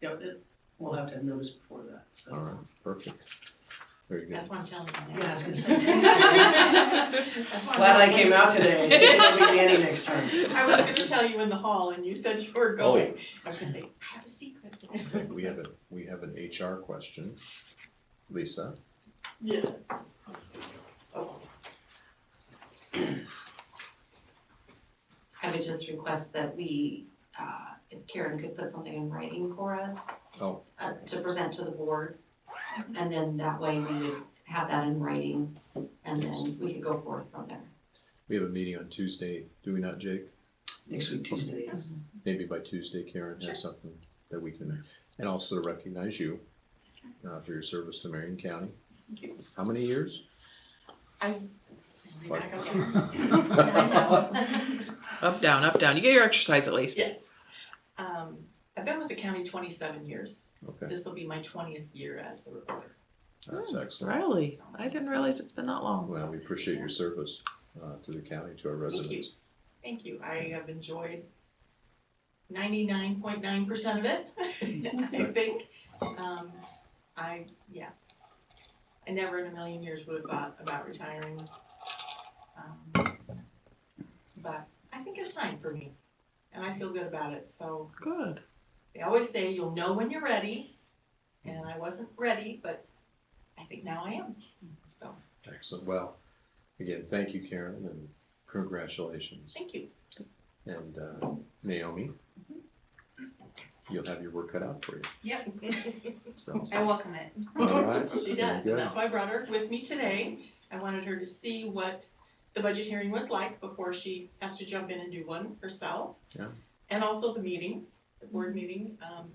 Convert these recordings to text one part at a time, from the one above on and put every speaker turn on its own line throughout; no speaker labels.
Yep, it, we'll have to have notice before that, so.
All right, perfect. Very good.
That's what I'm telling you.
Yeah, I was gonna say, thanks, Glad I came out today, I'll be Danny next time.
I was gonna tell you in the hall and you said you were
Oh.
going. I was gonna say, I have a secret.
Okay, we have a, we have an HR question. Lisa?
Yes. Oh.
I would just request that we, uh, if Karen could put something in writing for us.
Oh.
uh, to present to the board, and then that way we would have that in writing, and then we could go forth from there.
We have a meeting on Tuesday, do we not, Jake?
Next week, Tuesday, yes.
Maybe by Tuesday Karen has something that we can, and also to recognize you uh, for your service to Marion County. How many years?
Am I back again?
Up, down, up, down. You get your exercise at least.
Yes. Um, I've been with the county twenty-seven years.
Okay,
This will be my twentieth year as the recorder.
that's excellent.
Really? I didn't realize it's been that long.
Well, we appreciate your service uh, to the county, to our residents.
Thank you. I have enjoyed ninety-nine point nine percent of it, I think. Um, I, yeah. I never in a million years would have thought about retiring. Um, But I think it's time for me, and I feel good about it, so
Good.
they always say you'll know when you're ready, and I wasn't ready, but I think now I am, so,
Excellent. Well, again, thank you, Karen, and congratulations.
thank you.
And uh, Naomi, you'll have your work cut out for you.
Yep.
So,
I welcome it.
all right.
She
Very
does,
good.
and that's why I brought her with me today. I wanted her to see what the budget hearing was like before she has to jump in and do one herself.
Yeah.
And also the meeting, the board meeting. Um,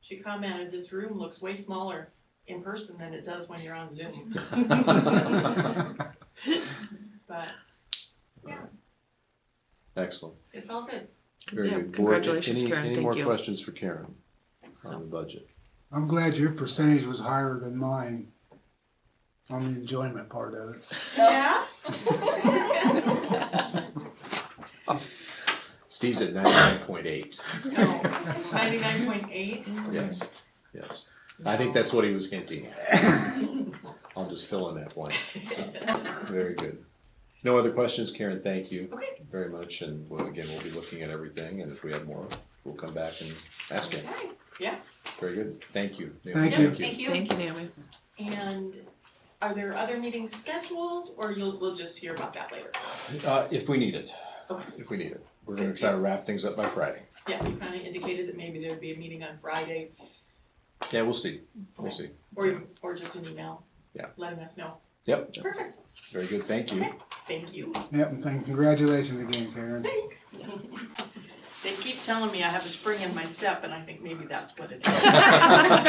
she commented, this room looks way smaller in person than it does when you're on Zoom, but
Excellent.
it's all good.
Very
Yeah,
good. Board,
congratulations,
any-
Karen.
Any
Thank
more
you.
questions for Karen on the budget?
I'm glad your percentage was higher than mine on the enjoyment part of it.
Yeah?
Steve's at ninety-nine point eight.
Ninety-nine point eight.
Yes, yes. I think that's what he was hinting at. I'll just fill in that blank. Very good. No other questions, Karen, thank you
Okay.
very much, and well, again, we'll be looking at everything, and if we have more, we'll come back and ask you.
Okay.
Very good, thank you. Naomi.
Thank you.
Thank you.
Thank you, Naomi.
And are there other meetings scheduled, or you'll, we'll just hear about that later?
Uh, if we need it,
Okay.
if we need it. We're gonna try to wrap things up by Friday.
Yeah, you kind of indicated that maybe there'd be a meeting on Friday,
Yeah, we'll see, we'll see.
or, or just an email.
Yeah.
Letting us know.
Yep,
Perfect,
very good, thank you.
thank you.
Yep, and thank- congratulations again, Karen.
Thanks. They keep telling me I have a spring in my step, and I think maybe that's what it is.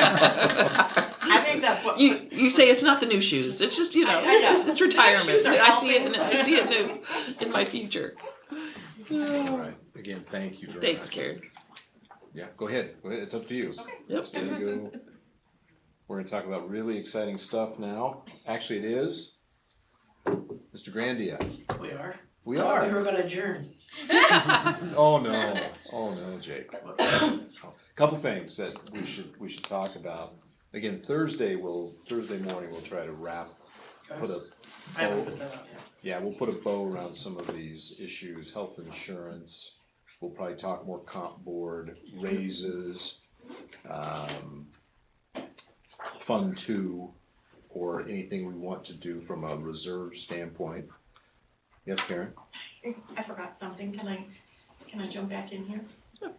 I think that's what.
You you say it's not the new shoes. It's just you know,
I- I know.
It's, it's retirement.
Shoes are
I see it. In,
helping.
I see it new in my future.
All right, again, thank you very much.
Thanks, Karen.
Yeah, go ahead, Go ahead. it's up to you.
Yep.
There you go. We're gonna talk about really exciting stuff now. Actually, it is. Mr. Grandia,
We are.
we
We were
are.
gonna adjourn.
Oh, no. Oh, no, Jake. Couple things that we should, we should talk about. Again, Thursday will, Thursday morning, we'll try to wrap, put a
I
bow
will put that out.
yeah, we'll put a bow around some of these issues, health insurance. We'll probably talk more comp board raises, um, fund two, or anything we want to do from a reserve standpoint. Yes, Karen?
I forgot something, can I, can I jump back in here?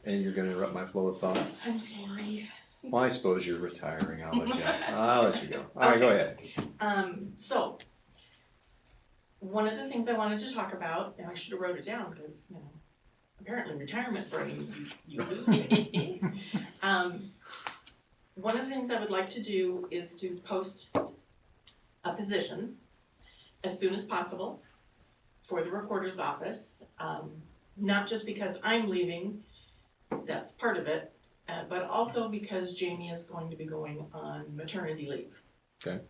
And you're gonna interrupt my flow of thought?
I'm sorry.
Well, I suppose you're retiring. I'll let you, I'll let you go. All right, go ahead.
Um, so, one of the things I wanted to talk about, and I should have wrote it down, because, you know, apparently retirement brain, you, you lose things. Um, one of the things I would like to do is to post a position as soon as possible for the recorder's office. Um, not just because I'm leaving, that's part of it, uh, but also because Jamie is going to be going on maternity leave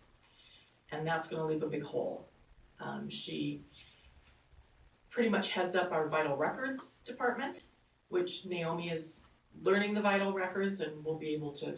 and that's gonna leave a big hole. Um, she pretty much heads up our vital records department, which Naomi is learning the vital records and will be able to